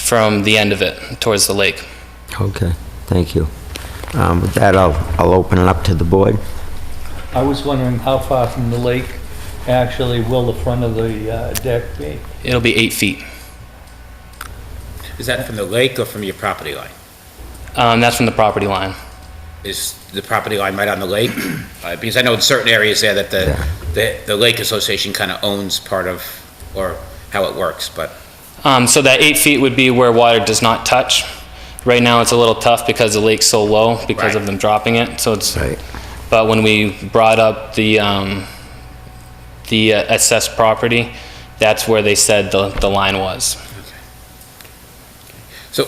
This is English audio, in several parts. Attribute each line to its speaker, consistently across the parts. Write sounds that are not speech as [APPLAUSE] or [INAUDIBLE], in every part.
Speaker 1: from the end of it towards the lake.
Speaker 2: Okay, thank you. Um, With that, I'll, I'll open it up to the board.
Speaker 3: I was wondering how far from the lake actually will the front of the uh, deck be?
Speaker 1: It'll be eight feet.
Speaker 4: Is that from the lake or from your property line?
Speaker 1: Um, that's from the property line.
Speaker 4: Is the property line right on the lake? Uh, Because I know in certain areas there that the,
Speaker 2: Yeah.
Speaker 4: the, the Lake Association kind of owns part of, or how it works, but
Speaker 1: Um, so that eight feet would be where water does not touch. Right now, it's a little tough because the lake's so low because of
Speaker 4: Right.
Speaker 1: them dropping it. So it's.
Speaker 2: Right.
Speaker 1: But when we brought up the um, the uh, assessed property, that's where they said the the line was.
Speaker 4: So,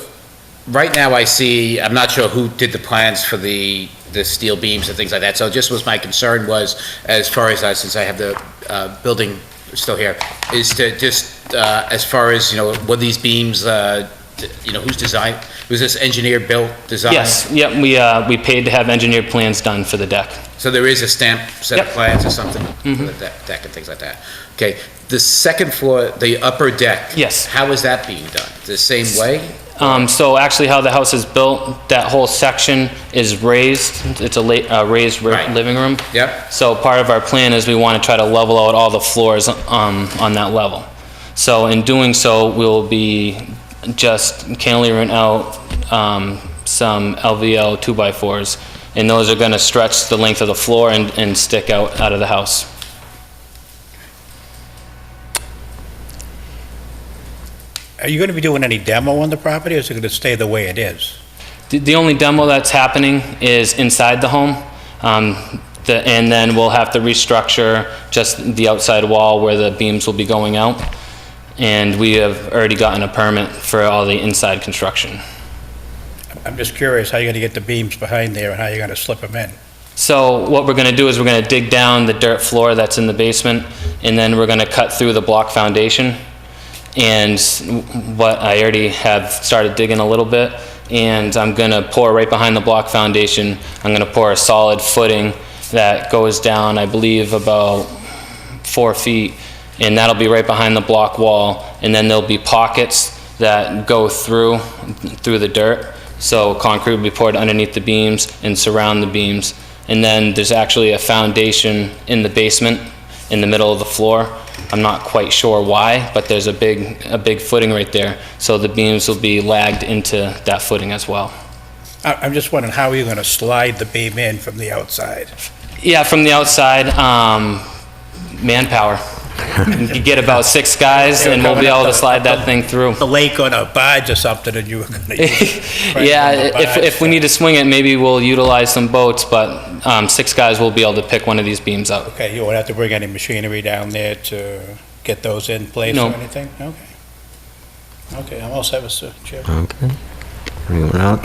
Speaker 4: right now I see, I'm not sure who did the plans for the, the steel beams and things like that, so just was my concern was, as far as, I- since I have the uh, building still here, is to just, uh, as far as, you know, were these beams, uh, d- you know, whose design, was this engineer-built design?
Speaker 1: Yes. Yep. We uh, we paid to have engineered plans done for the deck.
Speaker 4: So there is a stamp set of
Speaker 1: Yep.
Speaker 4: plans or something, for the deck deck and things like that. Okay, the second floor, the upper deck?
Speaker 1: Yes.
Speaker 4: How is that being done? The same way?
Speaker 1: Um, so actually, how the house is built, that whole section is raised. It's a la- uh, raised ri-
Speaker 4: Right.
Speaker 1: living room.
Speaker 4: Yep.
Speaker 1: So part of our plan is we want to try to level out all the floors um, on that level. So in doing so, we'll be just cantilevering out um, some LVL two by fours, and those are going to stretch the length of the floor and, and stick out out of the house.
Speaker 5: Are you going to be doing any demo on the property, or is it going to stay the way it is?
Speaker 1: The- The only demo that's happening is inside the home, um, the- and then we'll have to restructure just the outside wall where the beams will be going out. And we have already gotten a permit for all the inside construction.
Speaker 5: I'm just curious how you're going to get the beams behind there, and how you're going to slip them in.
Speaker 1: So what we're going to do is we're going to dig down the dirt floor that's in the basement, and then we're going to cut through the block foundation. And what, I already have started digging a little bit, and I'm going to pour right behind the block foundation, I'm going to pour a solid footing that goes down, I believe, about four feet, and that'll be right behind the block wall. And then there'll be pockets that go through, through the dirt. So concrete will be poured underneath the beams and surround the beams. And then there's actually a foundation in the basement, in the middle of the floor. I'm not quite sure why, but there's a big, a big footing right there. So the beams will be lagged into that footing as well.
Speaker 5: I- I'm just wondering, how are you going to slide the beam in from the outside?
Speaker 1: Yeah, from the outside, um, manpower. You get about six guys and we'll be able to slide that thing [LAUGHS] through.
Speaker 5: The lake on a barge or something, and you were going
Speaker 1: [LAUGHS]
Speaker 5: to use...
Speaker 1: Yeah, if, if we need to swing it, maybe we'll utilize some boats, but um, six guys will be able to pick one of these beams up.
Speaker 5: Okay, you won't have to bring any machinery down there to get those in place
Speaker 1: No.
Speaker 5: or anything? Okay. Okay, I'm all set, Mr. Chair.
Speaker 2: Okay. Anyone else?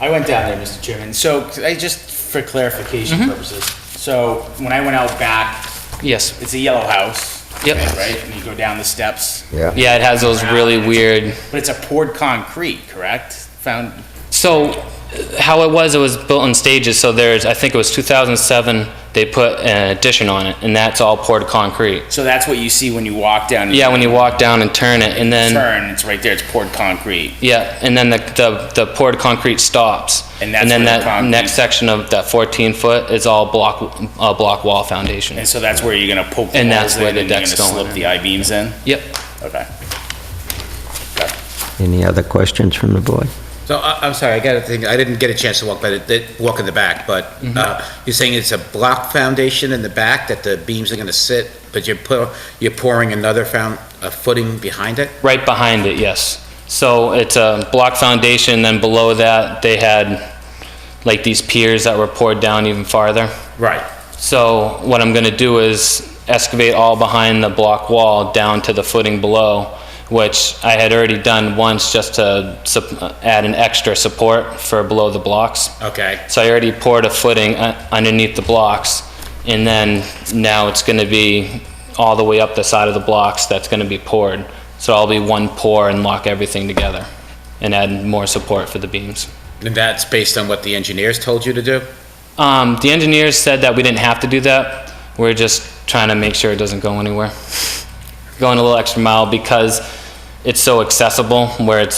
Speaker 6: I went down there, Mr. Chairman. So, I just for clarification
Speaker 1: Mm-hmm.
Speaker 6: purposes. So, when I went out back,
Speaker 1: Yes.
Speaker 6: it's a yellow house.
Speaker 1: Yep.
Speaker 6: Right, and you go down the steps,
Speaker 2: Yeah.
Speaker 1: Yeah, it has those really weird,
Speaker 6: but it's a poured concrete, correct? Found
Speaker 1: so uh, how it was, it was built in stages, so there's, I think it was 2007, they put an addition on it, and that's all poured concrete.
Speaker 6: so that's what you see when you walk down.
Speaker 1: Yeah, when you walk down and turn it, and then,
Speaker 6: turn, it's right there. It's poured concrete.
Speaker 1: yeah, and then the, the the poured concrete stops.
Speaker 6: And that's
Speaker 1: then
Speaker 6: where
Speaker 1: that
Speaker 6: the concrete-
Speaker 1: next section of that 14-foot is all block, uh, block wall foundation.
Speaker 6: And so that's where you're gonna poke the
Speaker 1: And that's
Speaker 6: holes
Speaker 1: where
Speaker 6: in,
Speaker 1: the
Speaker 6: and you're
Speaker 1: deck's
Speaker 6: gonna
Speaker 1: going
Speaker 6: slip
Speaker 1: in.
Speaker 6: the I beams in.
Speaker 1: Yep.
Speaker 6: Okay.
Speaker 2: Any other questions from the board?
Speaker 4: So, I, I'm sorry, I got to think, I didn't get a chance to walk, but it, it- walk in the back, but, uh, you're saying it's a block foundation in the back that the beams are gonna sit, but you're pu, you're pouring another found, a footing behind it?
Speaker 1: Right behind it, yes. So it's a block foundation, then below that, they had like these piers that were poured down even farther.
Speaker 4: Right.
Speaker 1: So what I'm gonna do is excavate all behind the block wall down to the footing below, which I had already done once just to sup- add an extra support for below the blocks.
Speaker 4: Okay,
Speaker 1: So I already poured a footing uh, underneath the blocks, and then now it's gonna be all the way up the side of the blocks that's gonna be poured. So I'll be one pour and lock everything together, and add more support for the beams.
Speaker 4: and that's based on what the engineers told you to do?
Speaker 1: Um, the engineers said that we didn't have to do that, we're just trying to make sure it doesn't [LAUGHS] go anywhere. Going a little extra mile because it's so accessible, where it's